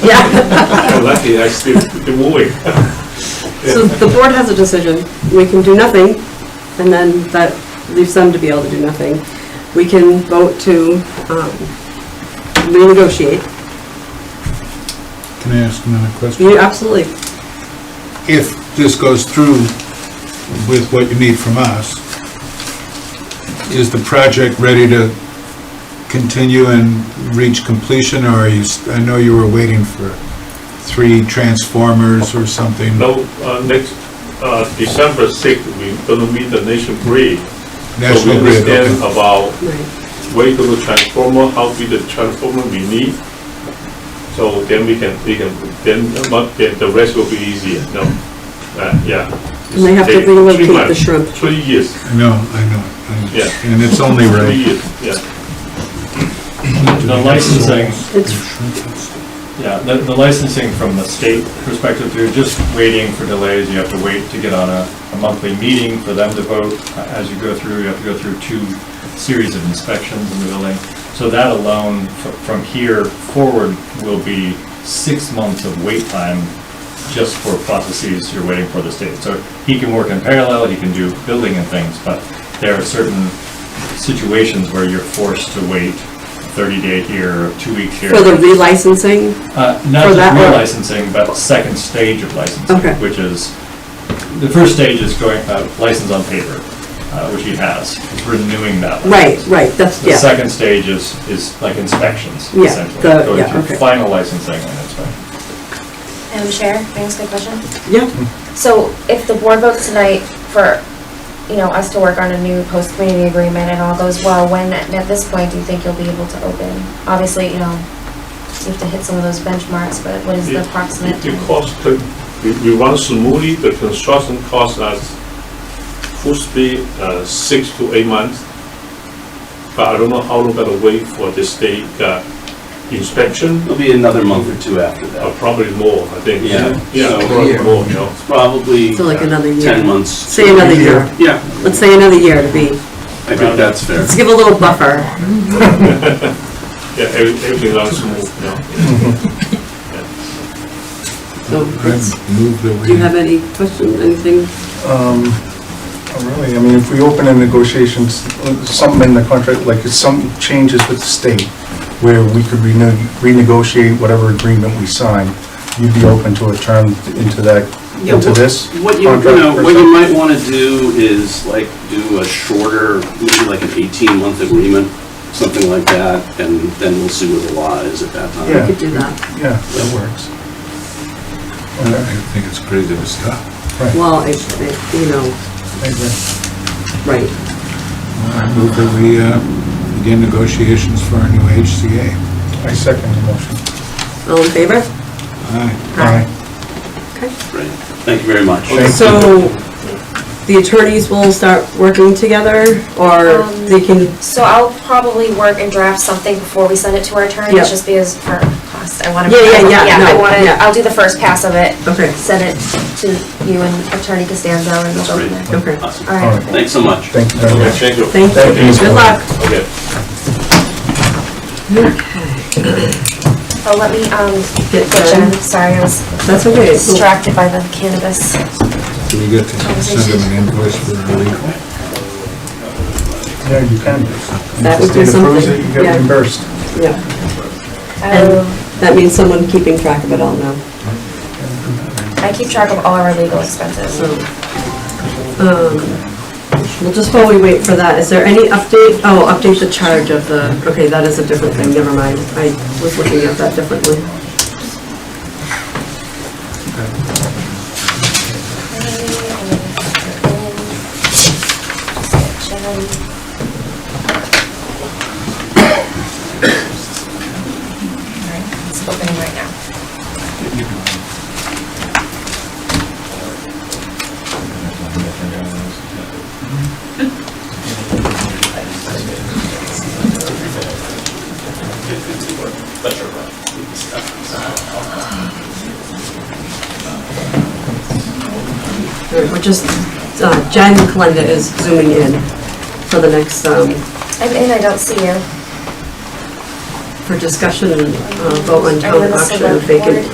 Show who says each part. Speaker 1: Yeah.
Speaker 2: You're Lucky, I still, the wooing.
Speaker 1: So the board has a decision. We can do nothing, and then that leaves them to be able to do nothing. We can vote to um, renegotiate.
Speaker 3: Can I ask another question?
Speaker 1: You absolutely,
Speaker 3: If this goes through with what you need from us, is the project ready to continue and reach completion, or are you, s- I know you were waiting for three transformers or something.
Speaker 2: Now, uh, next, uh, December sixth, we gonna meet the nation grid.
Speaker 3: National Grid,
Speaker 2: So we understand
Speaker 3: okay.
Speaker 2: about
Speaker 1: right.
Speaker 2: where you gonna transformer, how big the transformer we need. So then we can, we can, then, but then the rest will be easier, no? Uh, yeah.
Speaker 1: And they have to
Speaker 2: Take three
Speaker 1: relocate the
Speaker 2: months,
Speaker 1: shrimp.
Speaker 2: Three years,
Speaker 3: I know, I know. I-
Speaker 2: Yeah.
Speaker 3: And it's only
Speaker 2: three
Speaker 3: right.
Speaker 2: years, yeah.
Speaker 4: The licensing,
Speaker 1: It's,
Speaker 4: yeah, the the licensing from the state perspective, you're just waiting for delays, you have to wait to get on a a monthly meeting for them to vote. As you go through, you have to go through two series of inspections in the building. So that alone, f- from here forward, will be six months of wait time just for processes you're waiting for the state. So he can work in parallel, he can do building and things, but there are certain situations where you're forced to wait 30-day here, or two weeks here.
Speaker 1: for the relicensing,
Speaker 4: Uh, Not
Speaker 1: For
Speaker 4: just
Speaker 1: that one?
Speaker 4: relicensing, but second stage of licensing,
Speaker 1: Okay.
Speaker 4: which is, the first stage is going, uh, license on paper, uh, which he has, It's renewing that
Speaker 1: right,
Speaker 4: license.
Speaker 1: right, that's,
Speaker 4: The
Speaker 1: yeah.
Speaker 4: second stage is, is like inspections,
Speaker 1: Yeah,
Speaker 4: essentially,
Speaker 1: the-
Speaker 4: going
Speaker 1: yeah,
Speaker 4: through
Speaker 1: okay.
Speaker 4: final licensing and inspection.
Speaker 5: Madam Chair, can I ask a question?
Speaker 1: Yeah,
Speaker 5: So if the board votes tonight for, you know, us to work on a new post-community agreement and all goes well, when, at at this point, do you think you'll be able to open? Obviously, you know, you have to hit some of those benchmarks, but what is the
Speaker 2: It-
Speaker 5: approximate?
Speaker 2: The
Speaker 5: time?
Speaker 2: cost, can- we, we run smoothly, the construction costs us full speed, uh, six to eight months. But I don't know how long gotta wait for the state, uh, inspection,
Speaker 6: It'll be another month or two after
Speaker 2: or
Speaker 6: that.
Speaker 2: probably more, I think.
Speaker 6: Yeah.
Speaker 2: Yeah,
Speaker 6: So-
Speaker 2: probably more, you know.
Speaker 6: It's Probably
Speaker 1: so like another year.
Speaker 6: 10 months.
Speaker 1: Say another year.
Speaker 6: Yeah,
Speaker 1: Let's say another year to be,
Speaker 6: I think that's fair.
Speaker 1: let's give a little buffer.
Speaker 2: Yeah, every- everything runs smooth, you know.
Speaker 1: So it's-
Speaker 3: I move that we-
Speaker 1: Do you have any question, anything?
Speaker 7: Um, Really, I mean, if we open in negotiations, something in the contract, like if some changes with the state, where we could rene- renegotiate whatever agreement we sign, you'd be open to a term into that,
Speaker 6: Yeah,
Speaker 7: into
Speaker 6: what-
Speaker 7: this?
Speaker 6: What you, you
Speaker 7: contract
Speaker 6: know,
Speaker 7: per
Speaker 6: what you
Speaker 7: se?
Speaker 6: might want to do is like do a shorter, maybe like an 18-month agreement, something like that, and then we'll see where the law is at that time.
Speaker 1: We could do that.
Speaker 7: Yeah, that works.
Speaker 3: I
Speaker 7: Okay,
Speaker 3: think it's crazy to stop.
Speaker 7: right,
Speaker 1: Well, it- it- you know,
Speaker 7: I agree.
Speaker 1: right.
Speaker 3: I move that we uh, begin negotiations for our new HCA.
Speaker 7: I second the motion.
Speaker 1: All in favor?
Speaker 3: Aye.
Speaker 1: Aye. Okay.
Speaker 6: Great. Thank you very much.
Speaker 7: Thank you.
Speaker 1: So the attorneys will start working together or
Speaker 5: Um,
Speaker 1: they can,
Speaker 5: So I'll probably work and draft something before we send it to our
Speaker 1: Yeah.
Speaker 5: attorneys, just because for cost, I want to.
Speaker 1: Yeah, yeah, yeah,
Speaker 5: I
Speaker 1: no,
Speaker 5: want
Speaker 1: yeah.
Speaker 5: to, I'll do the first pass of it.
Speaker 1: Okay.
Speaker 5: Send it to you and Attorney Costanzo and we'll
Speaker 6: That's
Speaker 5: go from
Speaker 6: great.
Speaker 1: okay,
Speaker 5: there.
Speaker 6: Awesome.
Speaker 5: All
Speaker 7: All
Speaker 5: right.
Speaker 7: right.
Speaker 6: Thanks so much.
Speaker 7: Thank you very
Speaker 2: Okay,
Speaker 7: much.
Speaker 2: thank you.
Speaker 1: thank
Speaker 7: Uh, Thank
Speaker 1: you.
Speaker 7: you.
Speaker 1: Good luck.
Speaker 2: Okay.
Speaker 5: Oh, let me, um,
Speaker 1: Get
Speaker 5: get Jen,
Speaker 1: Jen.
Speaker 5: sorry, I was
Speaker 1: That's okay. So-
Speaker 5: distracted by the cannabis.
Speaker 3: Do we get to send them an invoice for our legal?
Speaker 7: Yeah, you can.
Speaker 1: That would be
Speaker 7: If the state approves it,
Speaker 1: something,
Speaker 7: You get
Speaker 1: yeah.
Speaker 7: reimbursed.
Speaker 1: Yeah,
Speaker 5: Oh,
Speaker 1: that means someone keeping track of it all now,
Speaker 5: I keep track of all our legal expenses.
Speaker 1: so. um, Well, just while we wait for that, is there any update? Oh, update the charge of the, okay, that is a different thing, never mind. I was looking at that differently.
Speaker 5: Alright, It's opening right now.
Speaker 1: We're just, uh, Jen Kalenda is zooming in for the next, um, Uh,
Speaker 5: I'm in, I don't see you.
Speaker 1: for for discussion and uh, vote on
Speaker 5: Are you
Speaker 1: town
Speaker 5: the
Speaker 1: option
Speaker 5: select
Speaker 1: vacant
Speaker 5: board?